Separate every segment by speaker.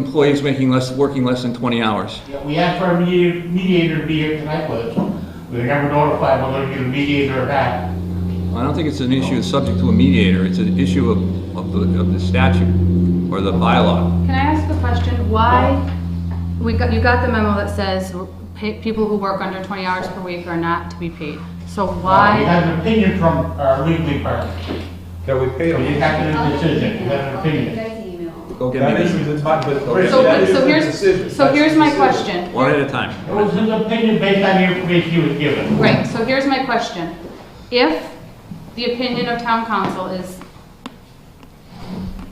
Speaker 1: employees making less, working less than 20 hours.
Speaker 2: Yeah, we asked for a mediator, mediator to be here tonight, but we were never notified whether we get a mediator or not. Uh,
Speaker 1: I don't think it's an issue subject to a mediator, it's an issue of, of the, of the statute or the bylaw.
Speaker 3: Can I ask a question? Why, we got, you got the memo that says pa- people who work under 20 hours per week are not to be paid. So
Speaker 2: We
Speaker 3: why,
Speaker 2: had an opinion from our legal department,
Speaker 4: that we paid
Speaker 2: so you
Speaker 4: them.
Speaker 2: have to
Speaker 5: I'll
Speaker 2: make
Speaker 5: get the
Speaker 2: a decision, you
Speaker 5: email.
Speaker 2: have an
Speaker 5: I'll get you
Speaker 2: opinion.
Speaker 5: guys the email.
Speaker 1: Go
Speaker 4: That
Speaker 1: get
Speaker 4: is
Speaker 1: me,
Speaker 4: the, but, but. Rich,
Speaker 3: so,
Speaker 4: that is
Speaker 3: so
Speaker 4: the
Speaker 3: here's,
Speaker 4: decision.
Speaker 3: so
Speaker 4: That's
Speaker 3: here's
Speaker 4: the
Speaker 3: my
Speaker 4: decision.
Speaker 3: question.
Speaker 1: one at a
Speaker 2: It
Speaker 1: time.
Speaker 2: was his opinion based on the information he was given.
Speaker 3: Right, so here's my question. If the opinion of town council is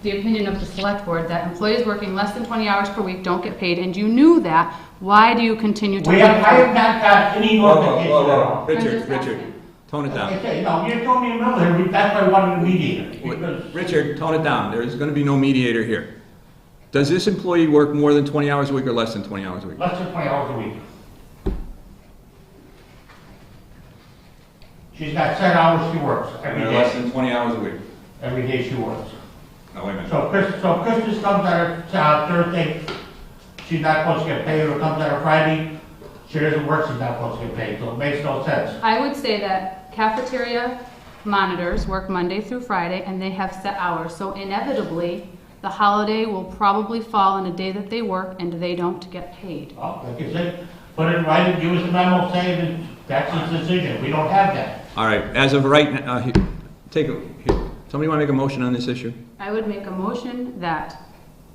Speaker 3: the opinion of the select board that employees working less than 20 hours per week don't get paid, and you knew that, why do you continue to?
Speaker 2: We have, I have not got any
Speaker 1: Whoa, whoa,
Speaker 2: notification at
Speaker 1: whoa, whoa.
Speaker 2: all.
Speaker 1: Richard,
Speaker 3: I'm just asking.
Speaker 1: Richard, tone it down.
Speaker 2: Okay, no, you told me a minute, ago, that's why I wanted a mediator, because
Speaker 1: Wait, Richard, tone it down, there is gonna be no mediator here. Does this employee work more than 20 hours a week or less than 20 hours a week?
Speaker 2: less than twenty hours a week. She's got ten hours she works every day,
Speaker 1: than 20 hours a week.
Speaker 2: every day she works.
Speaker 1: No, wait a
Speaker 2: So Chris, so Christmas comes on her, uh, Thursday, she's not supposed to get paid, or comes on a Friday, she doesn't work, she's not supposed to get paid, so it makes no sense.
Speaker 3: I would say that cafeteria monitors work Monday through Friday, and they have set hours, so inevitably, the holiday will probably fall on a day that they work and they don't get paid.
Speaker 2: Well, like I said, put it right, give us a memo saying that that's his decision, we don't have that.
Speaker 1: All right, as of right, n- uh, he- take, a- here. somebody wanna make a motion on this issue?
Speaker 3: I would make a motion that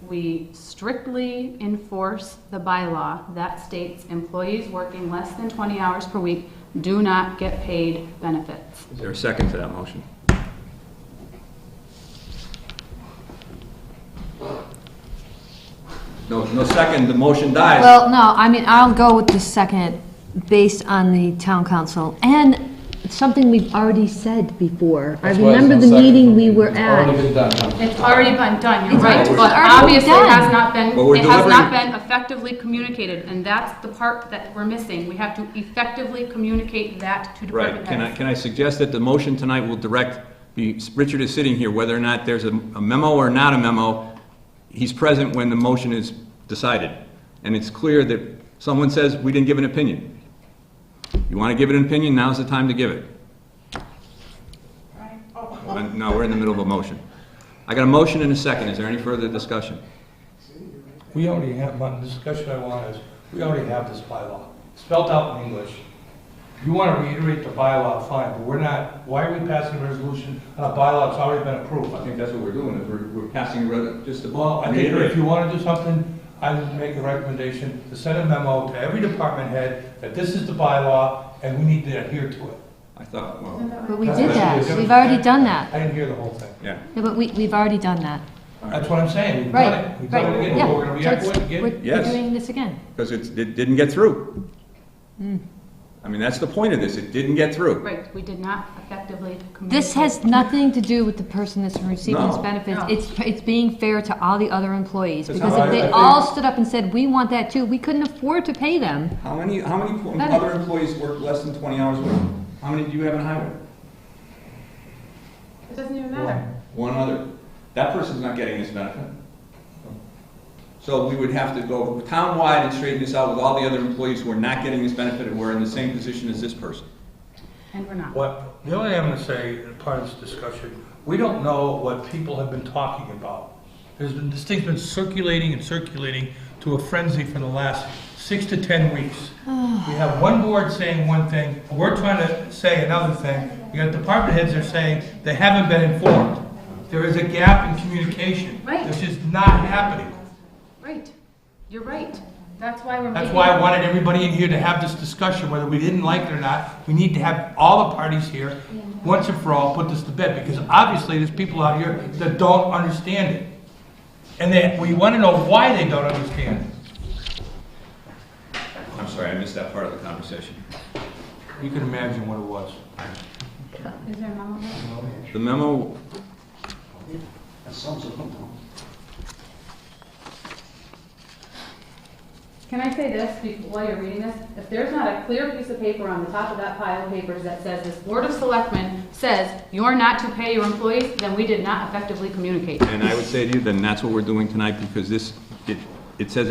Speaker 3: we strictly enforce the bylaw that states employees working less than 20 hours per week do not get paid benefits.
Speaker 1: Is there a second to that motion? No, no second, the motion dies.
Speaker 6: Well, no, I mean, I'll go with the second, based on the town council, and something we've already said before. I
Speaker 7: That's why it's
Speaker 6: remember
Speaker 7: on
Speaker 6: the
Speaker 7: second.
Speaker 6: meeting we were
Speaker 7: It's Already
Speaker 6: at.
Speaker 7: been done.
Speaker 3: It's already been done, you're right,
Speaker 6: already
Speaker 3: but
Speaker 6: done.
Speaker 3: obviously it has not been,
Speaker 1: But we're
Speaker 3: it has not
Speaker 1: delivering-
Speaker 3: been effectively communicated, and that's the part that we're missing. We have to effectively communicate that to
Speaker 1: Right,
Speaker 3: department
Speaker 1: can I,
Speaker 3: heads.
Speaker 1: can I suggest that the motion tonight will direct, the- Richard is sitting here, whether or not there's a a memo or not a memo, he's present when the motion is decided. And it's clear that someone says, "We didn't give an opinion." You want to give it an opinion, now's the time to give it. Uh, No, we're in the middle of a motion. I got a motion and a second, is there any further discussion?
Speaker 4: We already have, my discussion I want is, we already have this bylaw, spelled out in English. If You want to reiterate the bylaw, fine, but we're not, why are we passing a resolution on a bylaw that's already been approved?
Speaker 1: I think that's what we're doing, is we're, we're passing just a
Speaker 4: Well, I think if you want to do something, I would make a recommendation to send a memo to every department head that this is the bylaw and we need to adhere to it.
Speaker 1: I thought, well,
Speaker 6: But we did that, we've already done that.
Speaker 4: I didn't hear the whole thing.
Speaker 1: yeah.
Speaker 6: Yeah, but we, we've already done that.
Speaker 4: That's what I'm saying, we've done
Speaker 6: Right,
Speaker 4: it. We've done it
Speaker 6: right,
Speaker 4: again,
Speaker 6: yeah.
Speaker 4: we're going to
Speaker 6: So
Speaker 4: react
Speaker 6: it's-
Speaker 4: to it again.
Speaker 6: we're- We're
Speaker 1: Yes.
Speaker 6: doing this again.
Speaker 1: Because it's, it didn't get through. I mean, that's the point of this, it didn't get through.
Speaker 3: Right, we did not effectively communicate.
Speaker 6: This has nothing to do with the person that's receiving this
Speaker 1: No.
Speaker 6: benefits.
Speaker 3: No.
Speaker 6: It's, it's being fair to all the other employees,
Speaker 1: That's
Speaker 6: because
Speaker 1: how I-
Speaker 6: if
Speaker 1: I
Speaker 6: they
Speaker 1: think-
Speaker 6: all stood up and said, we want that too, we couldn't afford to pay them.
Speaker 1: How many, how many po-
Speaker 6: Better.
Speaker 1: other employees work less than 20 hours a week? How many do you have in highway?
Speaker 3: It doesn't even matter.
Speaker 1: One other. That person's not getting this benefit. So we would have to go townwide and straighten this out with all the other employees who are not getting this benefit and we're in the same position as this person.
Speaker 3: And we're not.
Speaker 4: What, the only thing I'm going to say, in part of this discussion, we don't know what people have been talking about. There's been, this thing's been circulating and circulating to a frenzy for the last six to 10 weeks. We have one board saying one thing, we're trying to say another thing. We got department heads that are saying they haven't been informed. There is a gap in communication.
Speaker 3: Right.
Speaker 4: This is not happening.
Speaker 3: Right, you're right. That's why we're making.
Speaker 4: That's why I wanted everybody in here to have this discussion, whether we didn't like it or not. We need to have all the parties here, once and for all, put this to bed, because obviously there's people out here that don't understand it. And that, we want to know why they don't understand it.
Speaker 1: I'm sorry, I missed that part of the conversation.
Speaker 4: You can imagine what it was.
Speaker 3: Is there a memo there?
Speaker 1: The memo,
Speaker 3: Can I say this be- while you're reading this? If there's not a clear piece of paper on the top of that pile of papers that says this Board of Selectmen says you're not to pay your employees, then we did not effectively communicate.
Speaker 1: and I would say to you, then that's what we're doing tonight because this, it it says